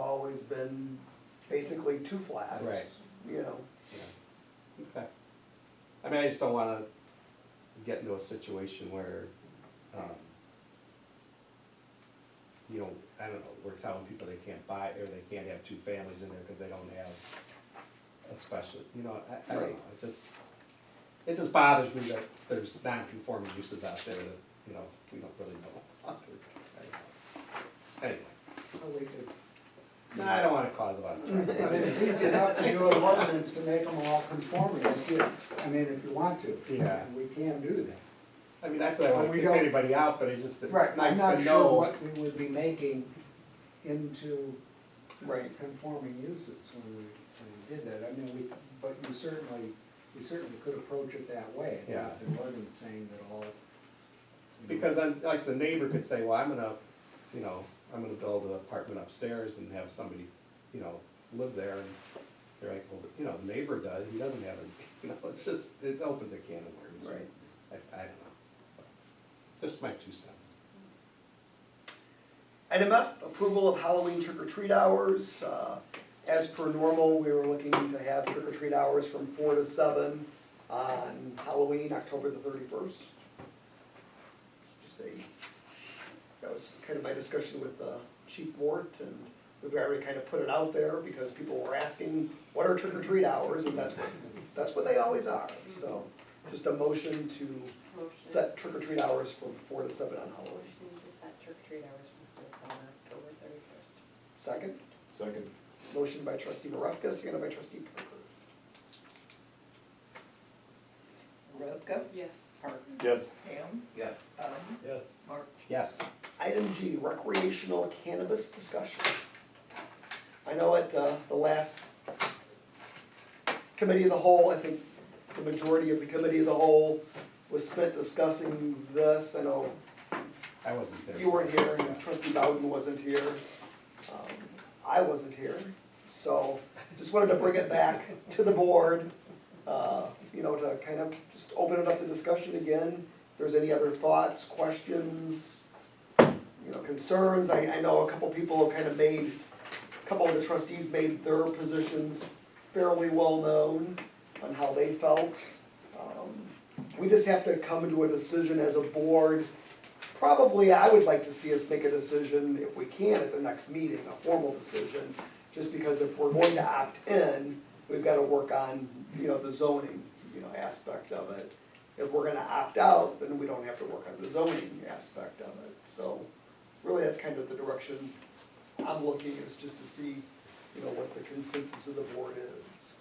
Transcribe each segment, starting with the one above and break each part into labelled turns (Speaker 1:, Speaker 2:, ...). Speaker 1: always been basically two flats, you know.
Speaker 2: Yeah. Okay. I mean, I just don't wanna get into a situation where, um, you know, I don't know, we're telling people they can't buy, or they can't have two families in there because they don't have a special, you know, I, I don't know,
Speaker 1: Right.
Speaker 2: it just, it just bothers me that there's non-conforming uses out there that, you know, we don't really know. Anyway,
Speaker 3: Or we could-
Speaker 2: no, I don't wanna cause a lot of trouble.
Speaker 3: I mean, it's easy enough to do an ordinance to make them all conforming, if you, I mean, if you want to.
Speaker 2: Yeah.
Speaker 3: We can do that.
Speaker 2: I mean, I feel like I
Speaker 3: Well,
Speaker 2: won't
Speaker 3: we
Speaker 2: kick
Speaker 3: don't-
Speaker 2: anybody out, but it's just, it's nice to know.
Speaker 3: I'm not sure what we would be making into
Speaker 1: Right.
Speaker 3: conforming uses when we, when we did that. I mean, we, but you certainly, we certainly could approach it that way.
Speaker 2: Yeah.
Speaker 3: The ordinance saying that all.
Speaker 2: Because I'm, like, the neighbor could say, well, I'm gonna, you know, I'm gonna build an apartment upstairs and have somebody, you know, live there, and they're like, well, you know, the neighbor does, he doesn't have a, you know, it's just, it opens a can of worms.
Speaker 1: Right.
Speaker 2: I, I don't know, So, just my two cents.
Speaker 1: Item F, approval of Halloween trick or treat hours. Uh, As per normal, we were looking to have trick or treat hours from four to seven on Halloween, October the thirty-first. Just a, that was kind of my discussion with uh, Chief Wart, and we've already kind of put it out there because people were asking, what are trick or treat hours? And that's what, that's what they always are, so just a motion to
Speaker 4: Motion.
Speaker 1: set trick or treat hours from four to seven on
Speaker 4: Motion
Speaker 1: Halloween.
Speaker 4: to set trick or treat hours from four to seven, October thirty-first.
Speaker 1: Second?
Speaker 5: Second.
Speaker 1: Motion by trustee Maravka, seconded by trustee Parker.
Speaker 6: Maravka?
Speaker 4: Yes.
Speaker 6: Park?
Speaker 5: Yes.
Speaker 6: Ham?
Speaker 5: Yes.
Speaker 6: Bowden?
Speaker 5: Yes.
Speaker 6: March?
Speaker 2: Yes,
Speaker 1: Item G, recreational cannabis discussion. I know at uh, the last committee of the whole, I think the majority of the committee of the whole was spent discussing this. I know
Speaker 2: I wasn't there.
Speaker 1: you weren't here, and trustee Bowden wasn't here, um, I wasn't here, so just wanted to bring it back to the board, uh, you know, to kind of just open it up to discussion again. If there's any other thoughts, questions, you know, concerns, I, I know a couple people have kind of made, a couple of the trustees made their positions fairly well-known on how they felt. Um, We just have to come to a decision as a board, Probably, I would like to see us make a decision, if we can, at the next meeting, a formal decision, just because if we're going to opt in, we've gotta work on, you know, the zoning, you know, aspect of it. If we're gonna opt out, then we don't have to work on the zoning aspect of it, so really, that's kind of the direction I'm looking, is just to see, you know, what the consensus of the board is.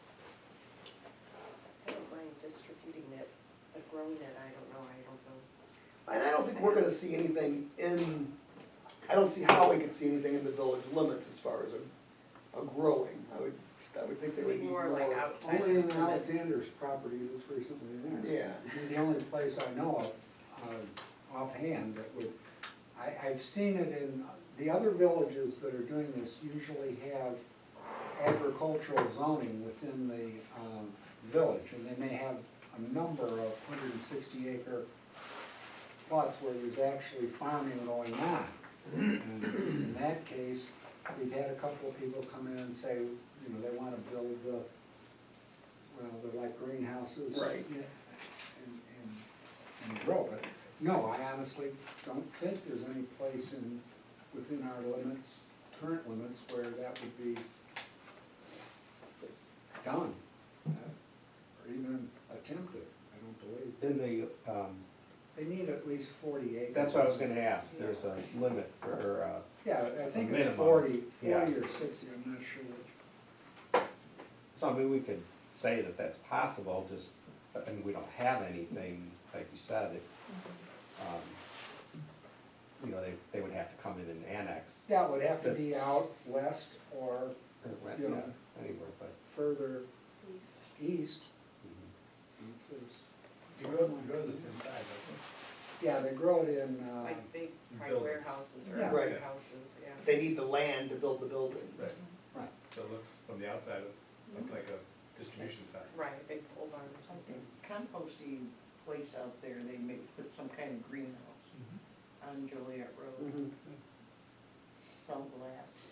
Speaker 4: I don't mind distributing it, but growing it, I don't know, I don't know.
Speaker 1: And I don't think we're gonna see anything in, I don't see how we could see anything in the village limits as far as a, a growing, I would, I would think they would
Speaker 4: It'd
Speaker 1: need
Speaker 4: be
Speaker 1: more.
Speaker 4: more like outside.
Speaker 3: Only in
Speaker 4: of the-
Speaker 3: Alexander's property that's recently there.
Speaker 1: Yeah,
Speaker 3: The only place I know of, uh, offhand, that would, I, I've seen it in, the other villages that are doing this usually have agricultural zoning within the, um, village, and they may have a number of hundred and sixty acre plots where there's actually farming going on. And in that case, we've had a couple of people come in and say, you know, they wanna build the, well, they're like greenhouses.
Speaker 1: Right.
Speaker 3: yeah, And, and, and grow it. No, I honestly don't think there's any place in, within our limits, current limits, where that would be done. uh, Or even attempted, I don't believe.
Speaker 2: In the, um,
Speaker 3: They need at least forty acres.
Speaker 2: that's what I was gonna ask, there's a limit for, uh,
Speaker 3: Yeah, I think it's
Speaker 2: Minimum,
Speaker 3: forty,
Speaker 2: yeah.
Speaker 3: forty or sixty, I'm not sure. which.
Speaker 2: So I mean, we could say that that's possible, just, I mean, we don't have anything, like you said, it, um, you know, they, they would have to come in and annex,
Speaker 3: Yeah, it would have to be out west or
Speaker 2: or rent,
Speaker 3: Yeah.
Speaker 2: yeah, anywhere, but.
Speaker 3: further
Speaker 4: Please.
Speaker 3: east.
Speaker 2: mhm.
Speaker 5: You wouldn't go this inside, I
Speaker 3: Yeah, they grow it in, uh,
Speaker 4: Like big, probably
Speaker 5: Buildings.
Speaker 4: warehouses or
Speaker 3: Yeah.
Speaker 1: Right.
Speaker 4: houses, yeah.
Speaker 1: they need the land to build the buildings.
Speaker 5: So it looks, from the outside, it
Speaker 2: Mm-hmm.
Speaker 5: looks like a distribution center.
Speaker 4: Right, a big pole barn or
Speaker 6: I
Speaker 4: something.
Speaker 6: think composting place out there, they may put some kind of greenhouse on Joliet Road,
Speaker 1: Mhm.
Speaker 6: it's all glass.